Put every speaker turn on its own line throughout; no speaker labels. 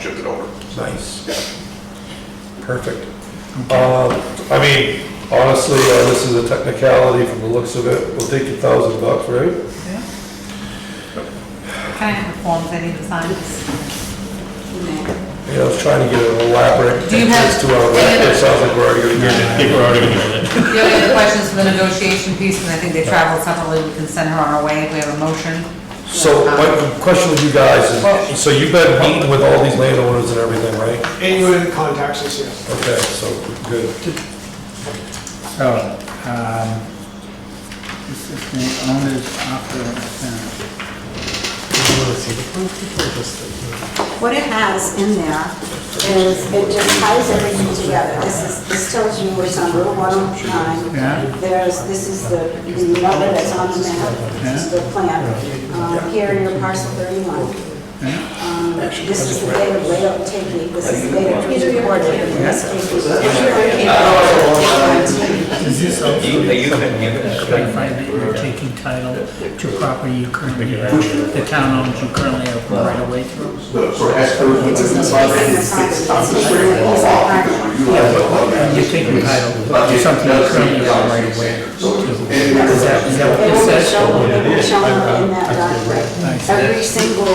shift it over.
Nice.
Yeah.
Perfect. Uh, I mean, honestly, uh, this is a technicality from the looks of it. We'll take a thousand bucks, right?
Can I have the forms I need to sign?
Yeah, I was trying to get an elaborate
Do you have-
entrance to our rec. It sounds like we're already
I
gonna get
think we're already doing it.
The only other question is for the negotiation piece, and I think they traveled separately, we can send her on her way if we have a motion.
it. So my question with you guys is, so you've been meeting with all these landowners and everything, right?
Anyone contacts us, yes.
Okay, so, good.
So, um, this is the owner's offer of tenant.
What it has in there is it just ties everything together. This is, this tells you it's on Route 109.
Yeah.
There's, this is the, the number that's on the map, this is the plan. Um, Here in your parcel 31. Um, This is the date of layout taking, this is the date of trees recorded, and this is the
Is this also clarify that you're taking title to property you currently have, the town owns you currently have right away through?
So as per
You're taking title to something you currently have right away. Is that, is that what it
It will be
says?
shown, it will be shown in that document. Every single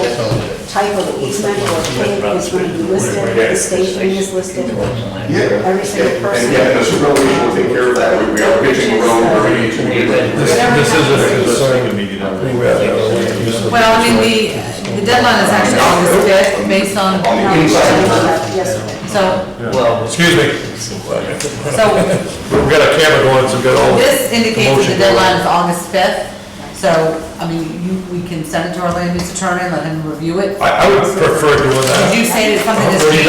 type of easement or pavement is going to be listed, the station is listed, every single person.
And yeah, the supervisor will take care of that. We- We are pitching a road where we need to. be.
This, this is a concern. We have another land use.
Well, I mean, the, the deadline is actually August fifth, based on,
On the inside.
Yesterday.
so,
Excuse me,
so
we've got a camera going, so we've got all.
This indicates that
Motion.
the deadline is August 5th, so, I mean, you, we can send it to our land use attorney, let him review it.
I, I would prefer doing that.
Did you say that something that's
What do you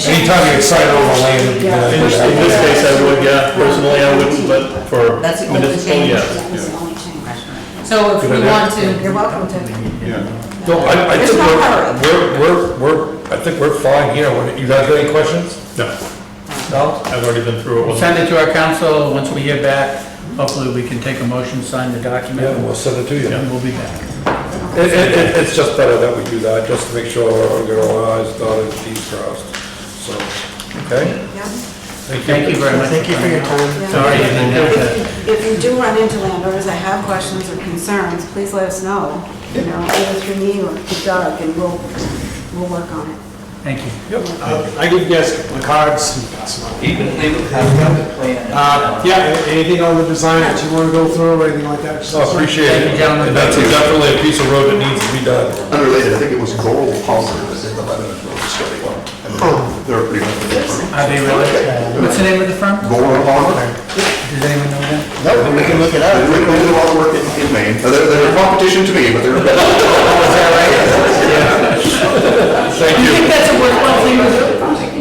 changed
guys think? I
in this
mean, anytime you
document?
excite over land, you
In
know,
in this case, I would, yeah, personally, I wouldn't, but for
That's the
Oh,
only
municipal,
change.
yes.
That was the only change.
So if we want to,
You're welcome to.
no, I, I
There's
think
no
we're,
hurry.
we're, we're, we're, I think we're fine here. What- You guys got any questions?
No,
No?
I've already been through it
We'll
once.
send it to our council, once we hear back, hopefully we can take a motion, sign the document,
Yeah, we'll send it to you. It,
and we'll be back.
it, it- it's just better that we do that, just to make sure we get all our eyes dotted, Ts crossed, so, okay?
Thank you very much. Thank you for your time. Sorry, you didn't have to.
If you- if you do run into landowners that have questions or concerns, please let us know, you know, either through me or through Doug, and we'll, we'll work on it.
Thank you.
Uh, I give you guys the cards and pass them out.
Even if they would have the plan.
Uh, Yeah, a- anything on the design that you want to go through or anything like that? just let
So
us know.
Oh, appreciate
Thank
it.
you, gentlemen.
And that's definitely a piece of road that needs to be done.
Unrelated, I think it was Gold Palmer that did the Lebanon Road study one. And They're pretty much different.
Are they really? What's the name of the firm?
Gold Palmer?
Does anyone know that?
No, we can look it up. They do a lot of work in in Maine. They're, they're a competition to me, but they're.
Thank you.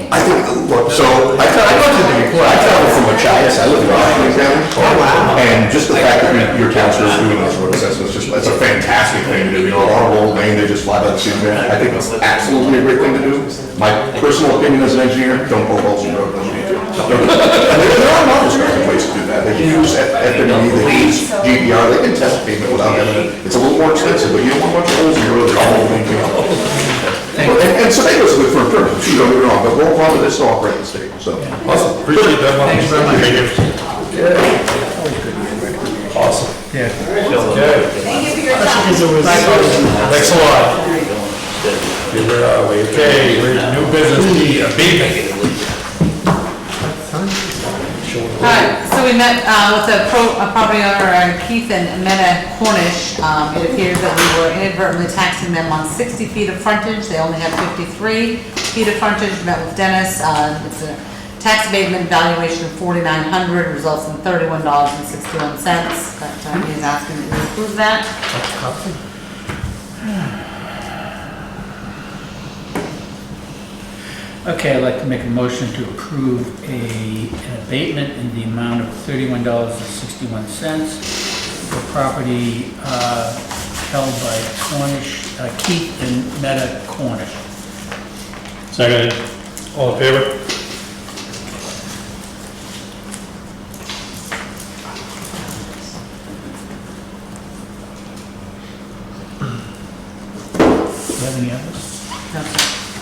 I think, look, so, I tra- I went to the, I traveled from Machias, I live in Rockland County. Oh, wow. And just the fact that your- your council's doing those road assessments, just, that's a fantastic thing to do, you know, a lot of old Maine, they just fly by the seat of their pants. I think it's absolutely a great thing to do. My personal opinion as an engineer, don't go holes in road, don't need to. There there are lots of different ways to do that, they can use F- FME, they can use GDR, they can test pavement without having, it. it's a little more expensive, but you don't want much holes in your road, they're all over the place. Well, And, and tomatoes are good for improvement, too, don't get me wrong, but Roll Pond is still operating state, so.
Awesome, appreciate that. Thanks very much. Awesome.
Yeah.
Okay, thanks a lot. Okay, Where are we? Okay, we're new business, the abatement.
alright, so we met, uh, with the pro, uh, property owner uh, Keith and Meta Cornish. Um, it appears that we were inadvertently taxing them on sixty feet of frontage, they only have fifty-three feet of frontage, met with Dennis, uh, it's a tax abatement valuation of forty-nine hundred, results in thirty-one dollars and sixty-one cents. But, uh, he's asking that you approve that.
Okay, I'd like to make a motion to approve a, an abatement in the amount of thirty-one dollars and sixty-one cents for property, uh, held by Cornish, uh, Keith and Meta Cornish.
Second,
All in favor?